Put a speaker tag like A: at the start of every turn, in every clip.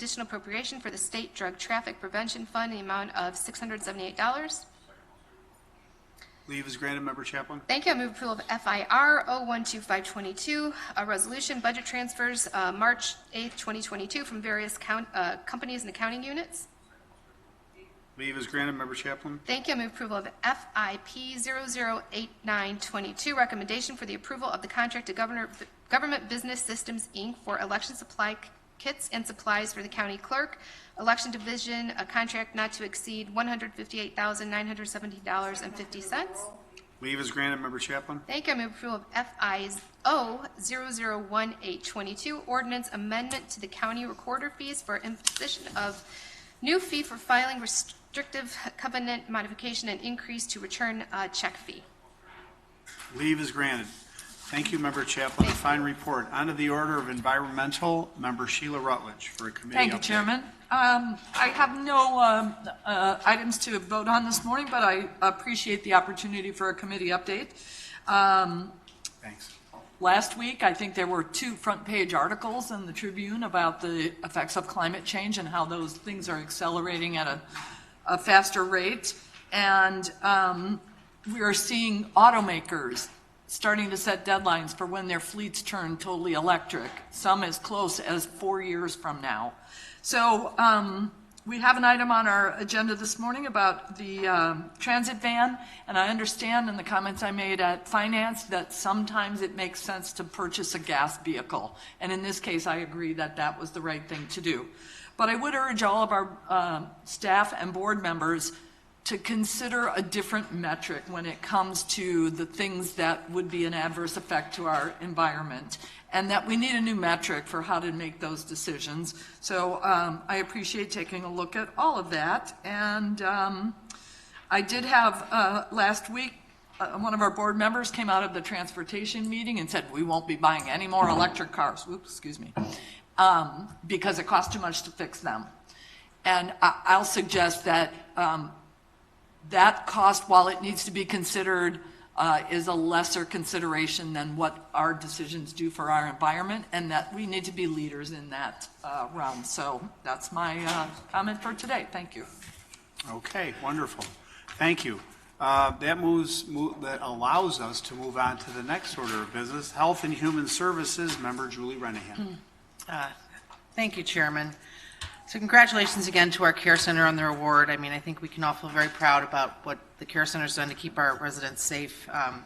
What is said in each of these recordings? A: additional appropriation for the State Drug Traffic Prevention Fund in the amount of $678.
B: Leave is granted, Member Chaplin.
A: Thank you. I oh move approval of FIR 012522, a resolution budget transfers, uh, March 8th, 2022, from various count- uh, companies and accounting units.
B: Leave is granted, Member Chaplin.
A: Thank you. I move approval of FIP 008922, recommendation for the approval of the contract to Governor, Government Business Systems, Inc. for election supply kits and supplies for the county clerk, election division, a contract not to exceed $158,970.50.
B: Leave is granted, Member Chaplin.
A: Thank you. I move approval of FIO 001822, ordinance amendment to the county recorder fees for imposition of new fee for filing restrictive covenant modification and increase to return uh, check fee.
B: Leave is granted. Thank you, Member Chaplin. A fine report. Onto the order of environmental, Member Sheila Rutledge for a committee
C: Thank you,
B: update.
C: Chairman. Um, I have no um, uh, items to vote on this morning, but I appreciate the opportunity for a committee update. Um,
B: Thanks.
C: Last week, I think there were two front-page articles in the Tribune about the effects of climate change and how those things are accelerating at a, a faster rate. And um, we are seeing automakers starting to set deadlines for when their fleets turn totally electric, some as close as four years from now. So um, we have an item on our agenda this morning about the um, transit van, and I understand in the comments I made at finance that sometimes it makes sense to purchase a gas vehicle. And in this case, I agree that that was the right thing to do. But I would urge all of our um, staff and board members to consider a different metric when it comes to the things that would be an adverse effect to our environment, and that we need a new metric for how to make those decisions. So um, I appreciate taking a look at all of that. And um, I did have, uh, last week, uh, one of our board members came out of the transportation meeting and said, we won't be buying any more electric cars, whoops, excuse me, um, because it costs too much to fix them. And I- I'll suggest that um, that cost, while it needs to be considered, uh, is a lesser consideration than what our decisions do for our environment, and that we need to be leaders in that uh, realm. So that's my uh, comment for today. Thank you.
B: Okay, wonderful. Thank you. Uh, That moves, mo- that allows us to move on to the next order of business, Health and Human Services, Member Julie
C: Hmm.
B: Renahan.
D: Thank you, Chairman. So congratulations again to our Care Center on their award. I mean, I think we can all feel very proud about what the Care Center's done to keep our residents safe. Um,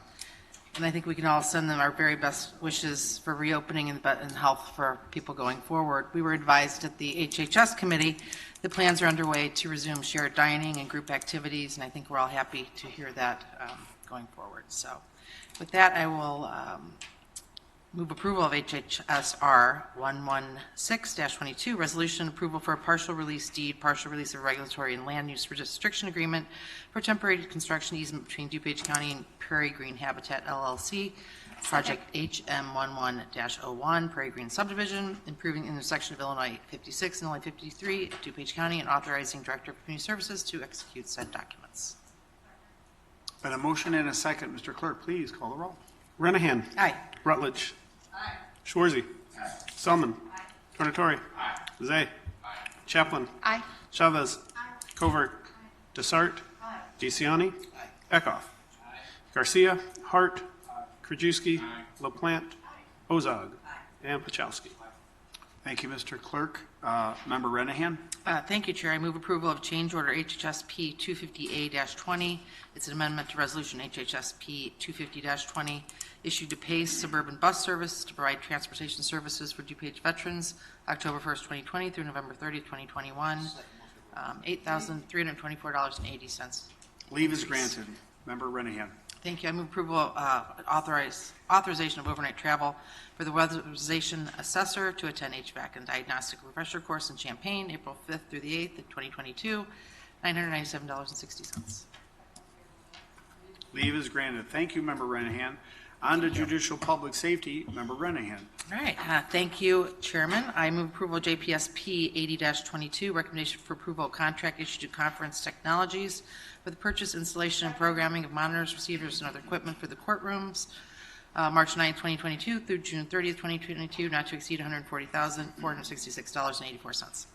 D: And I think we can all send them our very best wishes for reopening and and health for people going forward. We were advised at the HHS Committee that plans are underway to resume shared dining and group activities, and I think we're all happy to hear that um, going forward. So with that, I will um, Move approval of HHSR 116-22, resolution approval for a partial release deed, partial release of regulatory and land use restriction agreement for temporary construction easement between DuPage County and Prairie Green Habitat LLC, project HM11-01, Prairie Green subdivision, improving intersection of Illinois 56 and Illinois 53, at DuPage County, and authorizing Director of Community Services to execute said documents.
B: Been a motion and a second. Mr. Clerk, please call the roll. Renahan.
D: Aye.
B: Rutledge. Schwarzy. Selman. Tornatore. Zay. Chaplin.
A: Aye.
B: Chavez. Covert. Desart. DeCiani. Eckhoff. Garcia. Hart. Krajewski. LaPlante. Ozog. And Pachowski. Thank you, Mr. Clerk. Uh, Member Renahan.
D: Uh, Thank you, Chair. I move approval of change order HHSP 250A-20. It's an amendment to Resolution HHSP 250-20, issued to Pace Suburban Bus Service to provide transportation services for DuPage veterans, October 1st, 2020 through November 30th, 2021, um, $8,324.80.
B: Leave is granted. Member Renahan.
D: Thank you. I move approval, uh, authorize, authorization of overnight travel for the weatherization assessor to attend HVAC and diagnostic refresher course in Champaign, April 5th through the 8th of 2022, $997.60.
B: Leave is granted. Thank you, Member Renahan. On to Judicial Public Safety, Member Renahan.
D: All right, uh, thank you, Chairman. I move approval JPSP 80-22, recommendation for approval of contract issued to Conference Technologies for the purchase, installation, and programming of monitors, receivers, and other equipment for the courtrooms, uh, March 9, 2022 through June 30, 2022, not to exceed $140,466.84.